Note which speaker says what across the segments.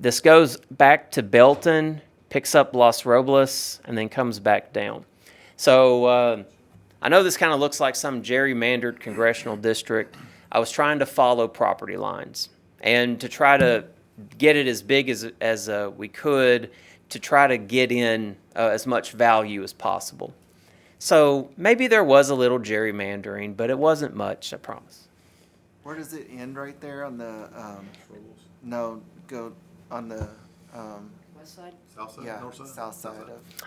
Speaker 1: This goes back to Belton, picks up Los Robles, and then comes back down. So uh, I know this kind of looks like some gerrymandered congressional district. I was trying to follow property lines and to try to get it as big as, as uh, we could to try to get in uh, as much value as possible. So maybe there was a little gerrymandering, but it wasn't much, I promise.
Speaker 2: Where does it end right there on the, um, no, go on the, um,
Speaker 3: West side?
Speaker 4: South side,
Speaker 2: yeah,
Speaker 4: north side?
Speaker 2: south side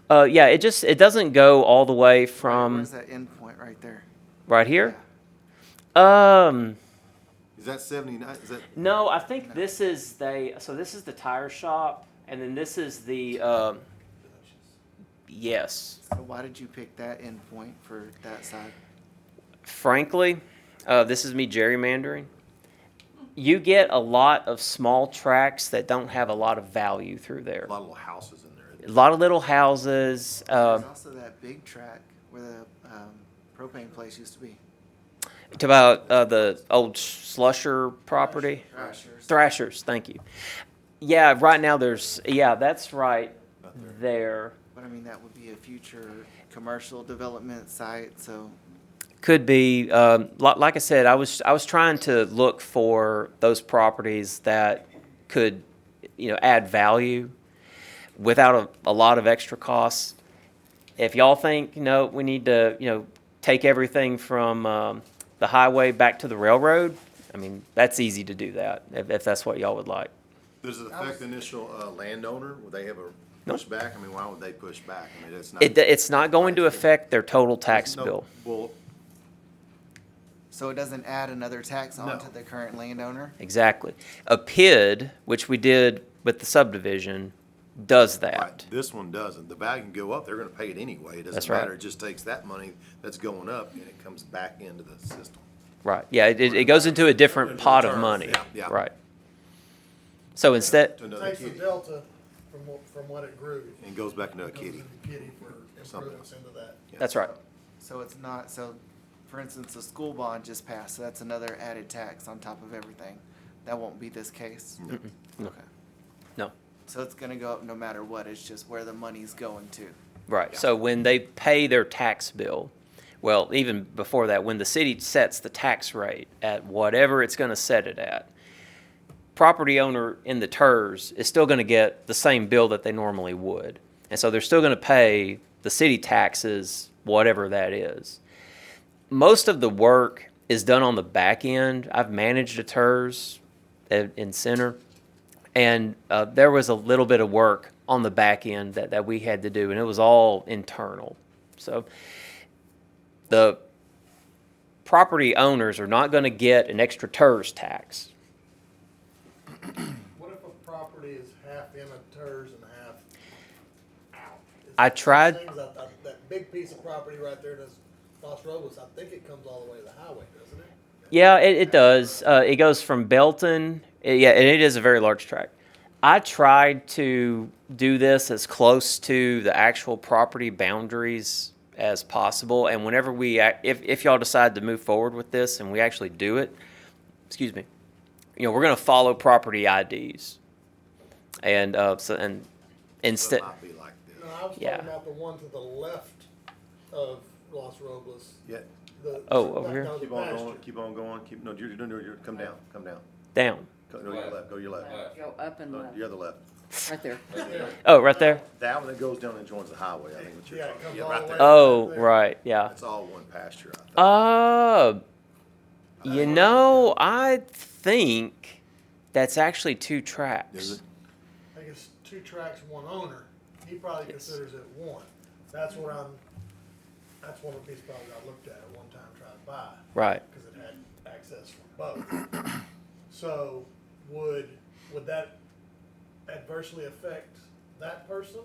Speaker 2: of.
Speaker 1: Uh, yeah, it just it doesn't go all the way from
Speaker 2: Where's that end point right there?
Speaker 1: right here. Um,
Speaker 4: Is that seventy-nine, is that?
Speaker 1: no, I think this is they. So this is the tire shop, and then this is the. Um, yes,
Speaker 2: So why did you pick that end point for that side?
Speaker 1: frankly, uh, this is me gerrymandering. You get a lot of small tracks that don't have a lot of value through there.
Speaker 4: A lot of little houses in there.
Speaker 1: A lot of little houses. Uh,
Speaker 2: There's also that big track where the, um, propane place used to be.
Speaker 1: to about uh, the old Slusher property.
Speaker 2: Thrashers.
Speaker 1: Thrashers, thank you. Yeah, right now there's, yeah, that's right there.
Speaker 2: But I mean, that would be a future commercial development site, so
Speaker 1: Could be, um, li- like I said, I was, I was trying to look for those properties that could, you know, add value without a, a lot of extra costs. If y'all think, you know, we need to, you know, take everything from, um, the highway back to the railroad, I mean, that's easy to do that, if, if that's what y'all would like.
Speaker 4: Does it affect the initial uh, landowner? Would they have a pushback? I mean, why would they push back? I mean, it's not.
Speaker 1: It, it's not going to affect their total tax
Speaker 4: No,
Speaker 1: bill.
Speaker 4: Well,
Speaker 2: So it doesn't add another tax
Speaker 4: No.
Speaker 2: onto the current landowner?
Speaker 1: Exactly. A PID, which we did with the subdivision, does
Speaker 4: right,
Speaker 1: that.
Speaker 4: this one doesn't. The value can go up, they're gonna pay it anyway. It
Speaker 1: That's
Speaker 4: doesn't
Speaker 1: right.
Speaker 4: matter. It just takes that money that's going up and it comes back into the system.
Speaker 1: Right. Yeah, it, it goes into a different
Speaker 4: Into
Speaker 1: pot of
Speaker 4: reserves,
Speaker 1: money.
Speaker 4: yeah, yeah.
Speaker 1: Right. So instead,
Speaker 4: To another
Speaker 5: takes the
Speaker 4: kitty
Speaker 5: delta from what, from what it grew.
Speaker 4: and goes back into a
Speaker 5: Goes
Speaker 4: kitty.
Speaker 5: into Kitty for
Speaker 4: Something.
Speaker 5: improvements into that.
Speaker 4: Yeah.
Speaker 1: that's right.
Speaker 2: So it's not, so for instance, the school bond just passed, so that's another added tax on top of everything. That won't be this case?
Speaker 1: No.
Speaker 2: Okay.
Speaker 1: No.
Speaker 2: So it's gonna go up no matter what, it's just where the money's going to.
Speaker 1: Right. So when they pay their tax bill, well, even before that, when the city sets the tax rate at whatever it's going to set it at, property owner in the TERS is still going to get the same bill that they normally would. And so they're still going to pay the city taxes, whatever that is. Most of the work is done on the back end. I've managed a TERS at- in center and uh, there was a little bit of work on the back end that, that we had to do, and it was all internal. So the property owners are not going to get an extra TERS tax.
Speaker 5: What if a property is half in a TERS and half out? It's
Speaker 1: I
Speaker 5: one of those
Speaker 1: tried-
Speaker 5: things That, that- that big piece of property right there that's Los Robles, I think it comes all the way to the highway, doesn't it?
Speaker 1: Yeah, it, it does. Uh, it goes from Belton. eh, yeah, and it is a very large tract. I tried to do this as close to the actual property boundaries as possible. And whenever we, ac- if, if y'all decide to move forward with this and we actually do it, excuse me, you know, we're going to follow property IDs. And, uh, so, and
Speaker 4: So
Speaker 1: instead,
Speaker 4: It might be like this.
Speaker 5: No, I was
Speaker 1: Yeah.
Speaker 5: talking about the one to the left of Los Robles.
Speaker 4: Yeah,
Speaker 5: the-
Speaker 1: Oh, over
Speaker 5: that-
Speaker 1: here?
Speaker 5: that was
Speaker 4: keep on going,
Speaker 5: pasture.
Speaker 4: keep on going, keep, no, you're, you're, you're, come down, come down.
Speaker 1: down.
Speaker 4: Go to your left, go to your left.
Speaker 3: Go up and
Speaker 4: No,
Speaker 3: left,
Speaker 4: You're the left.
Speaker 3: right there.
Speaker 1: Oh, right there?
Speaker 4: That one that goes down and joins the highway, I think what you're
Speaker 5: Yeah, it
Speaker 4: talking about.
Speaker 5: comes
Speaker 4: Yeah,
Speaker 5: all
Speaker 4: right
Speaker 5: the
Speaker 4: there.
Speaker 5: way-
Speaker 1: Oh, right. Yeah.
Speaker 4: It's all one pasture, I think.
Speaker 1: Uh, you know, I think that's actually two
Speaker 4: Is
Speaker 1: tracks.
Speaker 4: it?
Speaker 5: I think it's two tracks, one owner. He probably considers it one. That's what I'm, that's one of the pieces probably I looked at at one time trying to buy.
Speaker 1: Right.
Speaker 5: Because it had access from both. So would, would that adversely affect that person?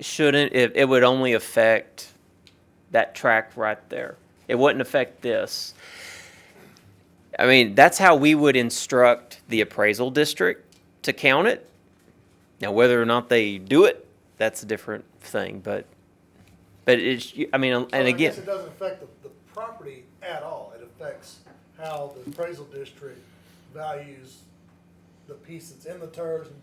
Speaker 1: Shouldn't it? It would only affect that track right there. It wouldn't affect this. I mean, that's how we would instruct the appraisal district to count it. Now, whether or not they do it, that's a different thing. But, but it's. I mean,
Speaker 5: So
Speaker 1: and
Speaker 5: I guess
Speaker 1: again,
Speaker 5: It doesn't affect the, the property at all. It affects how the appraisal district values the piece that's in the TERS and